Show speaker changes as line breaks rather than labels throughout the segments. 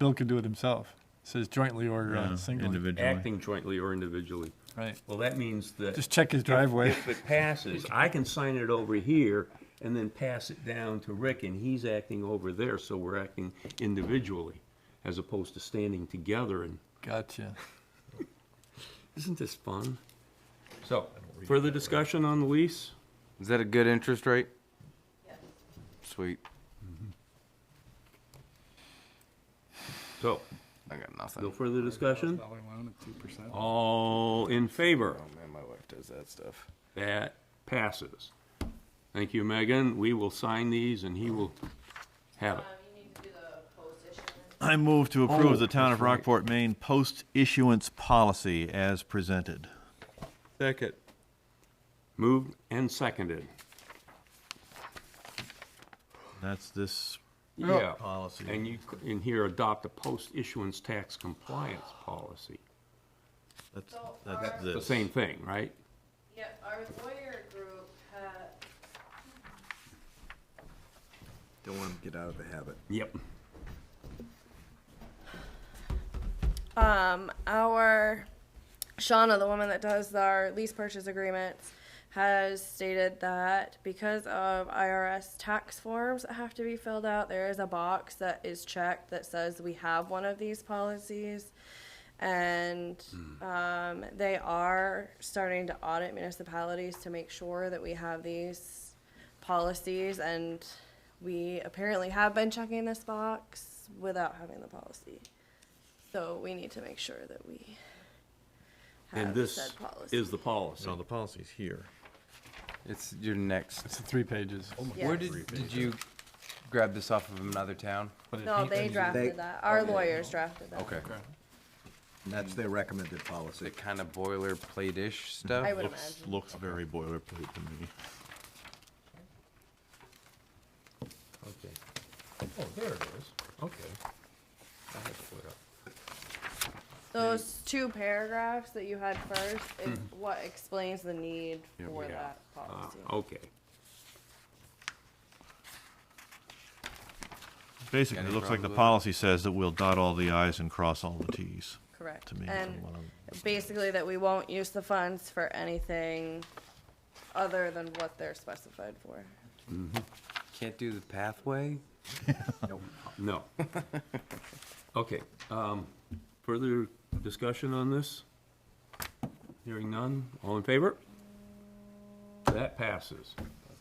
Bill could do it himself. It Says jointly or uh,
Yeah,
singly.
Individually.
acting jointly or individually.
Right.
Well, that means that.
Just check his driveway.
If it passes, I can sign it over here and then pass it down to Rick, and he's acting over there, so we're acting individually as opposed to standing together, and
Gotcha.
isn't this fun? So, further discussion on the lease?
Is that a good interest rate? Sweet.
So,
I got
no
nothing.
further discussion? All in favor?
Oh man, my wife does that stuff.
That passes. Thank you, Megan. We will sign these, and he will have it.
Um, you need to do the post issue.
I move to approve the town of
Oh, that's right.
Rockport, Maine post-issuance policy as presented.
Second.
Moved and seconded.
That's this
Yeah.
policy.
And you, c- in here, adopt a post-issuance tax compliance policy.
That's,
So
that's
our-
The
this.
same thing, right?
Yeah, our lawyer group had,
Don't want to get out of the habit.
Yep.
um, our, Shauna, the woman that does our lease purchase agreements, has stated that because of IRS tax forms that have to be filled out, there is a box that is checked that says we have one of these policies. And,
Hmm.
um, they are starting to audit municipalities to make sure that we have these policies and we apparently have been checking this box without having the policy. So we need to make sure that we
And
have said
this
policy.
is the policy.
No, the policy's here.
It's your next.
It's three pages.
Where
Yes.
did did you grab this off of another town?
No, they
They-
drafted that. Our lawyers drafted that.
Okay.
And that's their recommended
The
policy.
kind of boilerplate-ish stuff.
I would
Looks,
imagine.
looks very boilerplate to me.
Okay. Oh, there it is. Okay. I had to put it up.
Those two paragraphs that you had first is
Hmm.
what explains the need for
Yeah.
that policy.
Ah, Okay.
Basically, it
Any
looks like the
problems
policy
with it?
says that we'll dot all the i's and cross all the t's,
Correct.
to me. is
Um,
And
what I'm-
basically that we won't use the funds for anything other than what they're specified for.
Can't do the pathway.
No. Okay, um, further discussion on this? Hearing none, all in favor? That passes.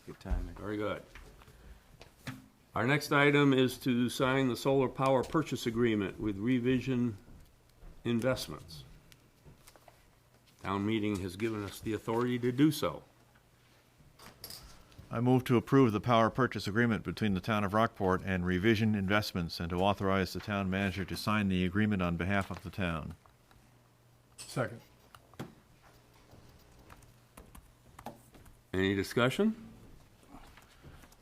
Good timing.
Very good. Our next item is to sign the solar power purchase agreement with Revision Investments. Town meeting has given us the authority to do so.
I move to approve the power purchase agreement between the town of Rockport and Revision Investments and to authorize the town manager to sign the agreement on behalf of the town.
Second.
Any discussion?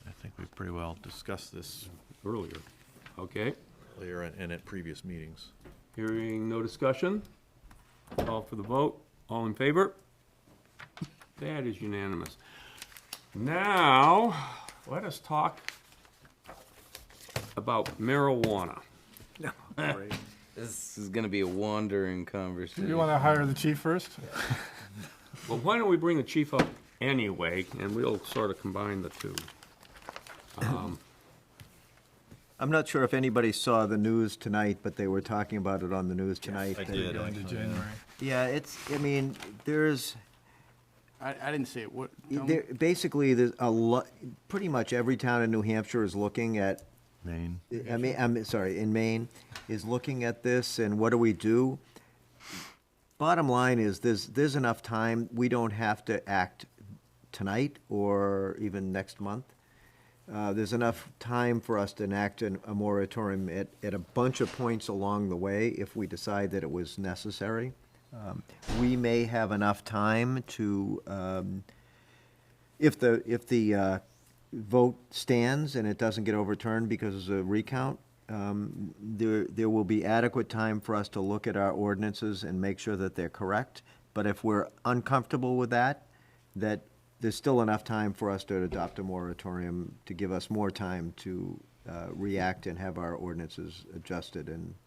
I think we pretty well discussed this
Earlier. Okay,
earlier and- and at previous meetings.
hearing no discussion. Call for the vote. All in favor? That is unanimous. Now, let us talk about marijuana.
This is gonna be a wandering conversation.
You want to hire the chief first?
Well, why don't we bring the chief up anyway, and we'll sort of combine the two.
I'm not sure if anybody saw the news tonight, but they were talking about it on the news tonight.
I
that-
did.
Go into January.
Yeah, it's, I mean, there's,
I, I didn't see it. What? tell me.
there, basically, there's a lot, pretty much every town in New Hampshire is looking at
Maine.
I mean, I'm sorry, in Maine, is looking at this and what do we do? Bottom line is, there's, there's enough time, we don't have to act tonight or even next month. Uh, there's enough time for us to enact an, a moratorium at, at a bunch of points along the way if we decide that it was necessary. Um, We may have enough time to, um, if the, if the uh, vote stands and it doesn't get overturned because of a recount, um, there, there will be adequate time for us to look at our ordinances and make sure that they're correct. But if we're uncomfortable with that, that there's still enough time for us to adopt a moratorium to give us more time to uh, react and have our ordinances adjusted and